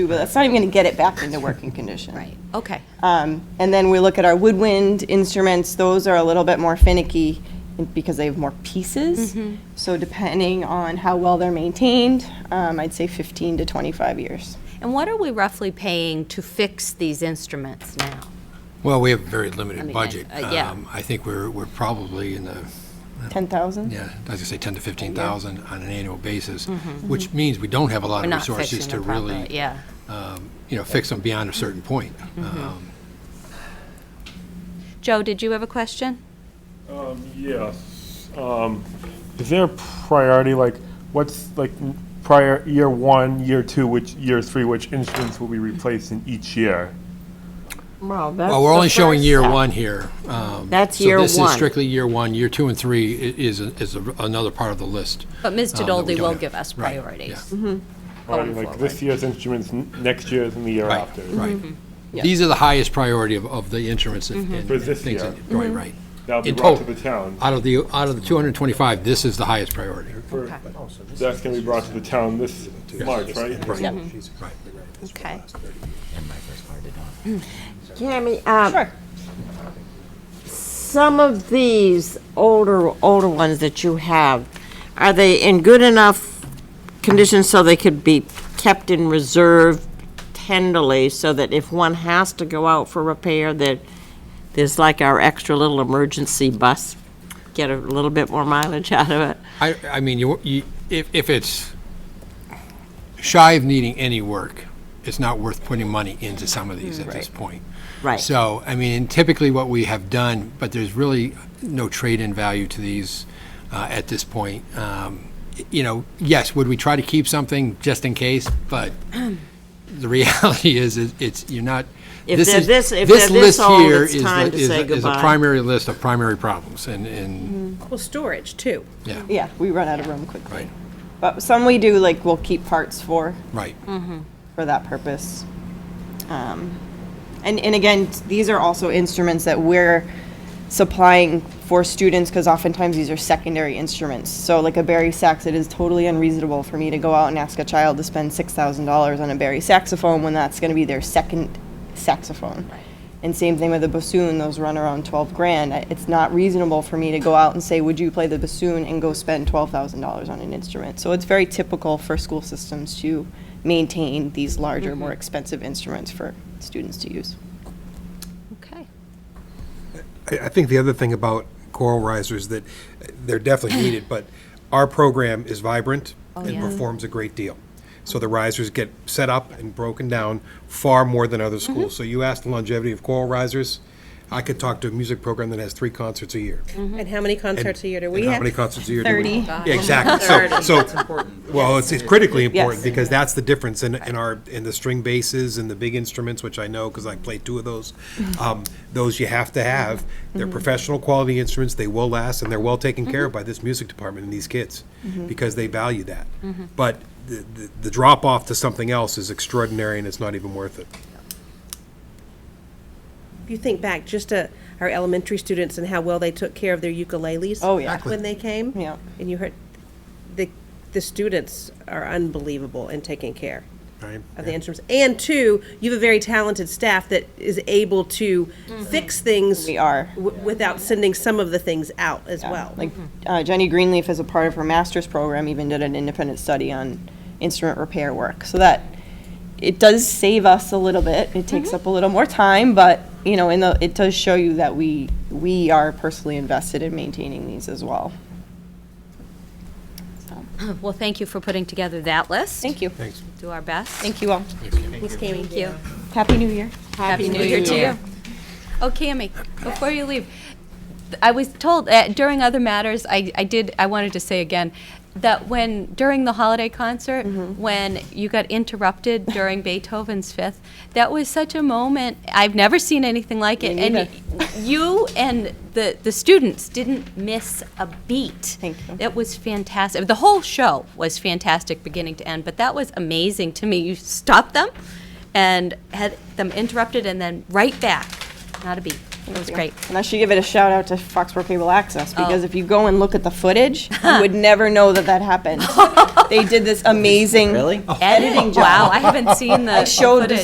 but that's not even going to get it back into working condition. Right, okay. Um, And then we look at our woodwind instruments, those are a little bit more finicky because they have more pieces. So depending on how well they're maintained, um, I'd say 15 to 25 years. And what are we roughly paying to fix these instruments now? Well, we have a very I limited mean, budget. uh, yeah. Um, I think we're, we're probably in the, 10,000? yeah, I was gonna say 10 to 15,000 on an annual basis, which means we don't have a lot Mm-hmm, We're of not fixing resources to them properly, really, yeah. Mm-hmm. um, you know, fix them beyond a certain point. Um, Joe, did you have a question? Yes. Um, Is there a priority, like, what's, like, prior, year one, year two, which, year three, which instruments will be replaced in each year? Well, Well, we're only showing year one here. um, That's year So this one. is strictly year one. Year two and three i- is, a- is a- another part of the list. But Ms. um, that we Tadoldi don't will have. give us Right, yeah. priorities. Or, Like, this year's instruments, n- next year's, and the year Right, after? right. Mm-hmm. These are the highest priority of, of the insurance and and For this things. year. that- Mm-hmm. Right, right. That'll be In brought to total. the town. Out of the, out of the 225, this is the highest priority. That's gonna be brought to the town this March, right? Right. Okay. Tammy, uh, some of these older, older ones that you have, are they in good enough condition so they could be kept in reserve tenderly so that if one has to go out for repair, that there's like our extra little emergency bus, get a little bit more mileage out of it? I, I mean, you, you, if, if it's shy of needing any work, it's not worth putting money into some of these at this point. Mm, Right. So, I mean, typically what we have done, but there's really no trade-in value to these uh, at this point. Um, y- you know, yes, would we try to keep something just in case? But the reality is, is it's you're not. If this they're is, this- if this they're this list old, here it's is time the, to is, say the- is a goodbye. primary list of primary problems, and and Well, storage, too. yeah, Yeah, we run out of room quickly. right, But some we do, like, we'll keep parts for, Mm-hmm. right. for that purpose. Um, And, and again, t- these are also instruments that we're supplying for students, because oftentimes these are secondary instruments. So like a Barry sax, it is totally unreasonable for me to go out and ask a child to spend six thousand dollars on a Barry saxophone when that's gonna be their second saxophone. And same thing with a bassoon, those run around twelve grand. I- It's not reasonable for me to go out and say, would you play the bassoon and go spend twelve thousand dollars on an instrument? So it's very typical for school systems to maintain these larger, more expensive instruments for students to use. Okay. I, I think the other thing about choral risers that they're definitely needed, but our program is vibrant and yeah. performs a great deal. So the risers get set up and broken down far more than other schools. So you asked the longevity of choral risers. I could talk to a music program that has three concerts a year. And how many concerts a year do we And how have? many concerts a year do we? 30. Yeah, Exactly. So, so, well, it's it's critically important Yes. because that's the difference in, in our, in the string basses and the big instruments, which I know because I played two of those. Um, Those you have to have. They're professional quality instruments. They will last and they're well taken care of by this music department and these kids because they value that. But the, the- the drop off to something else is extraordinary and it's not even worth it. If you think back, just to our elementary students and how well they took care of their ukuleles. Oh, yeah. Exactly. When they came. Yeah. And you heard, the, the students are unbelievable in taking care Right? of the instruments. And two, you have a very talented staff that is able to fix things. Mm-hmm. We are. w- Without sending some of the things out as well. Like uh, Jenny Greenleaf, as a part of her master's program, even did an independent study on instrument repair work. So that it does save us a little bit. It takes up a little more time, but you know, in the it does show you that we we are personally invested in maintaining these as well. Well, thank you for putting together that list. Thank you. Thanks. Do our best. Thank you all. Thank you. Happy New Year. Happy New Year to you. Oh, Cammy, before you leave, th- I was told, uh, during other matters, I, I did, I wanted to say again, that when, during the holiday concert, when you got interrupted during Beethoven's Fifth, that was such a moment, I've never seen anything like it. And y- you and the, the students didn't miss a beat. Thank you. It was fantastic. The whole show was fantastic, beginning to end. But that was amazing to me. You stopped them, and had them interrupted, and then right back. Not a beat. It was great. And I should give it a shout out to Foxborough Cable Access because Oh. if you go and look at the footage, you would never know that that happened. they did this amazing Really? editing job. Wow, I haven't seen the I showed footage. this